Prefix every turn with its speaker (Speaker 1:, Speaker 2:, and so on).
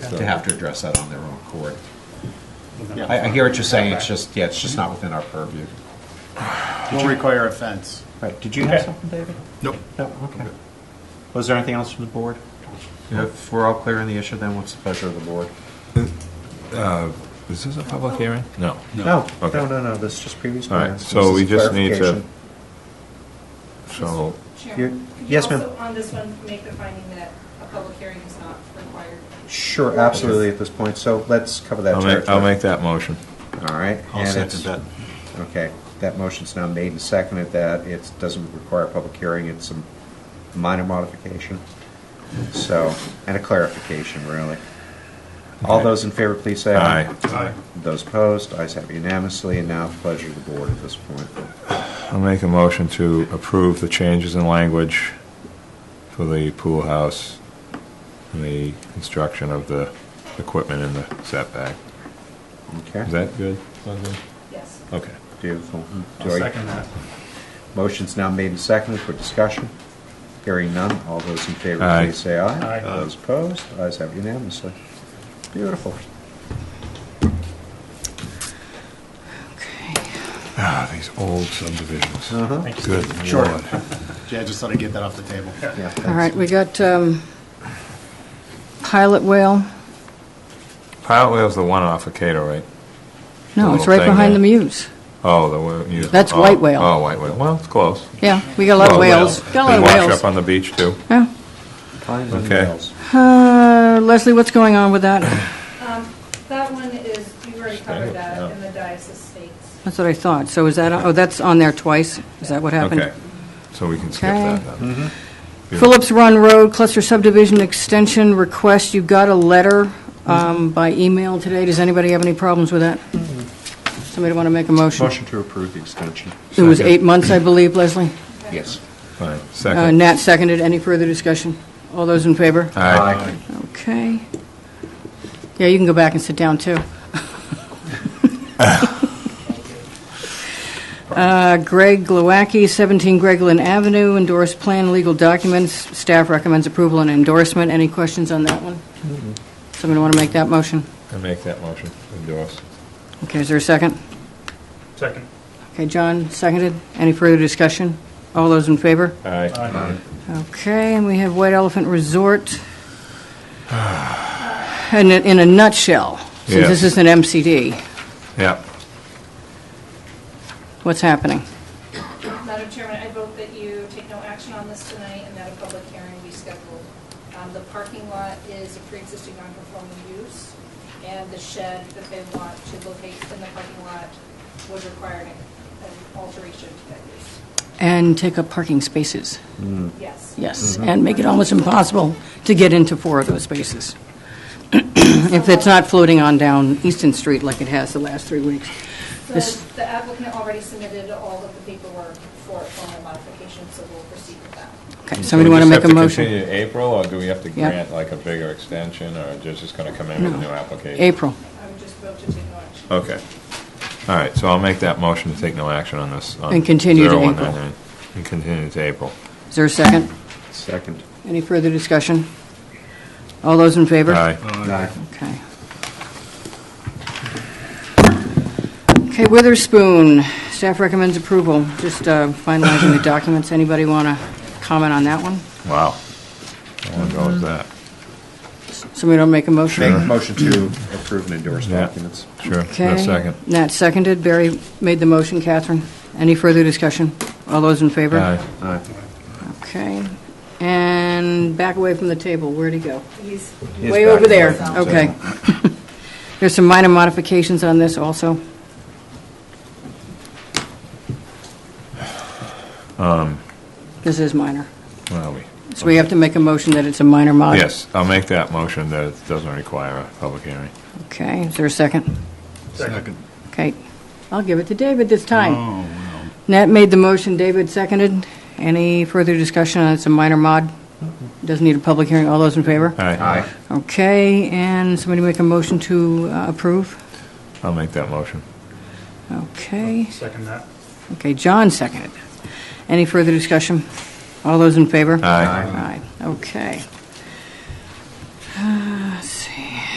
Speaker 1: to have to address that on their own court.
Speaker 2: Yeah.
Speaker 1: I, I hear what you're saying, it's just, yeah, it's just not within our purview.
Speaker 2: Will require a fence.
Speaker 1: Right, did you have something, David?
Speaker 3: Nope.
Speaker 1: No, okay. Was there anything else from the board? If we're all clear on the issue, then what's the pleasure of the board?
Speaker 3: Is this a public hearing? Oh. No.
Speaker 1: No, no,
Speaker 3: Okay.
Speaker 1: no, no, this is just previous
Speaker 3: All right,
Speaker 1: plans.
Speaker 3: so
Speaker 1: This is
Speaker 3: we just need to-
Speaker 1: clarification.
Speaker 3: So,
Speaker 1: You're-
Speaker 4: Chairman, could you
Speaker 1: yes, ma'am.
Speaker 4: also on this one make the finding that a public hearing is not required?
Speaker 1: Sure, absolutely, at this point, so let's cover that
Speaker 3: I'll make, I'll
Speaker 1: territory.
Speaker 3: make that motion.
Speaker 1: All right.
Speaker 5: I'll
Speaker 1: and
Speaker 5: second
Speaker 1: it's-
Speaker 5: that.
Speaker 1: Okay, that motion's now made and seconded that it doesn't require a public hearing, it's a minor modification. So, and a clarification, really. All
Speaker 3: Okay.
Speaker 1: those in favor, please say aye.
Speaker 3: Aye.
Speaker 1: Those opposed, ayes have unanimously, and now the pleasure of the board at this point.
Speaker 3: I'll make a motion to approve the changes in language for the pool house and the construction of the equipment in the setback. Is
Speaker 1: Okay,
Speaker 3: that good?
Speaker 4: Yes.
Speaker 3: Okay.
Speaker 1: beautiful.
Speaker 2: I'll
Speaker 1: Joy?
Speaker 2: second that.
Speaker 1: Motion's now made and seconded for discussion. Hearing none, all those in favor,
Speaker 3: Aye.
Speaker 1: please say aye.
Speaker 2: Aye.
Speaker 1: Those opposed, ayes have unanimously. Beautiful.
Speaker 3: Ah, these old subdivisions.
Speaker 1: Uh-huh.
Speaker 3: Good
Speaker 2: Sure.
Speaker 3: lord.
Speaker 2: Jay, I just thought I'd get that off the table.
Speaker 1: Yeah, thanks.
Speaker 6: All right, we got um, Pilot Whale.
Speaker 3: Pilot Whale's the one off of Cato, right?
Speaker 6: No,
Speaker 3: The
Speaker 6: it's
Speaker 3: little
Speaker 6: right
Speaker 3: thing
Speaker 6: behind the
Speaker 3: there.
Speaker 6: muse.
Speaker 3: Oh, the whale. you-
Speaker 6: That's
Speaker 3: oh,
Speaker 6: white whale.
Speaker 3: Oh, white whale. Well, it's close. Oh,
Speaker 6: Yeah, we got a lot of
Speaker 3: Well,
Speaker 6: whales. Got a
Speaker 3: They
Speaker 6: lot of
Speaker 3: wash
Speaker 6: whales.
Speaker 3: up on the beach, too.
Speaker 6: Yeah.
Speaker 1: Pines and
Speaker 3: Okay.
Speaker 1: Mills.
Speaker 6: Uh, Leslie, what's going on with that?
Speaker 4: Um, That one is, you already covered
Speaker 3: Yeah.
Speaker 4: that in the diocese states.
Speaker 6: That's what I thought. So is that, oh, that's on there twice? Is that what happened?
Speaker 3: Okay, so we can skip
Speaker 6: Okay.
Speaker 3: that then.
Speaker 6: Phillips Run Road Cluster Subdivision Extension Request, you got a letter um, by email today. Does anybody have any problems with that? Somebody want to make a motion?
Speaker 1: Motion to approve the extension.
Speaker 6: It was
Speaker 3: Second.
Speaker 6: eight months, I believe, Leslie.
Speaker 1: Yes.
Speaker 3: Fine,
Speaker 6: Uh,
Speaker 3: second.
Speaker 6: Nat seconded. Any further discussion? All those in favor?
Speaker 3: Aye.
Speaker 6: Okay. Yeah, you can go back and sit down, too. Uh, Greg Glowacki, 17 Gregland Avenue, endorsed plan, legal documents. Staff recommends approval and endorsement. Any questions on that one? Somebody want to make that motion?
Speaker 3: I make that motion, endorse.
Speaker 6: Okay, is there a second?
Speaker 2: Second.
Speaker 6: Okay, John, seconded. Any further discussion? All those in favor?
Speaker 3: Aye.
Speaker 6: Okay, and we have White Elephant Resort. And in- in a nutshell, since this
Speaker 3: Yeah.
Speaker 6: is an MCD,
Speaker 3: Yep,
Speaker 6: what's happening?
Speaker 4: Madam Chairman, I vote that you take no action on this tonight and that a public hearing be scheduled. Um, The parking lot is a pre-existing non-conforming use, and the shed that they want to locate in the parking lot would require an an alteration to that use.
Speaker 6: And take up parking spaces,
Speaker 1: Hmm.
Speaker 4: Yes.
Speaker 6: yes,
Speaker 3: Mm-hmm.
Speaker 6: and make it almost impossible to get into four of those spaces. If it's not floating on down Easton Street like it has the last three weeks.
Speaker 4: So
Speaker 6: This-
Speaker 4: the applicant already submitted all of the paperwork for a formal modification, so we'll proceed with that.
Speaker 6: Okay, somebody want to make
Speaker 3: Do
Speaker 6: a
Speaker 3: we
Speaker 6: motion?
Speaker 3: Mm-hmm. just have to continue to April, or do we have to
Speaker 6: Yeah.
Speaker 3: grant like a bigger extension, or just just going to come in with a new application?
Speaker 6: April,
Speaker 4: I would just vote to take no action.
Speaker 3: Okay. All right, so I'll make that motion to take no action on this. on
Speaker 6: And continue to
Speaker 3: 0199. And continue to April.
Speaker 6: is there a second?
Speaker 1: Second.
Speaker 6: Any further discussion? All those in favor?
Speaker 3: Aye.
Speaker 1: Aye.
Speaker 6: Okay. Okay, Witherspoon, staff recommends approval. Just uh, finalizing the documents. Anybody want to comment on that one?
Speaker 3: Wow. How long ago was that?
Speaker 6: Somebody want to make a
Speaker 1: Make a
Speaker 6: motion?
Speaker 1: motion to approve and endorse
Speaker 3: Yeah.
Speaker 1: documents.
Speaker 3: Sure,
Speaker 6: Okay.
Speaker 3: no second.
Speaker 6: Nat seconded. Barry made the motion. Catherine, any further discussion? All those in favor?
Speaker 3: Aye.
Speaker 1: Aye.
Speaker 6: Okay. And back away from the table. Where'd he go?
Speaker 4: He's
Speaker 1: He's
Speaker 6: Way
Speaker 1: back
Speaker 6: over there.
Speaker 1: there.
Speaker 6: Okay. There's some minor modifications on this also. This is minor.
Speaker 3: Where are we?
Speaker 6: So we have to make a motion that it's a minor mod?
Speaker 3: Yes, I'll make that motion that it doesn't require a public hearing.
Speaker 6: Okay, is there a second?
Speaker 2: Second.
Speaker 6: Okay, I'll give it to David this time. Nat made the motion, David seconded. Any further discussion on it's a minor mod? Doesn't need a public hearing, all those in favor?
Speaker 3: Aye.
Speaker 6: Okay, and somebody make a motion to uh, approve?
Speaker 3: I'll make that motion.
Speaker 6: Okay,
Speaker 2: Second that.
Speaker 6: okay, John seconded. Any further discussion? All those in favor?
Speaker 3: Aye.
Speaker 6: Aye, okay. Uh,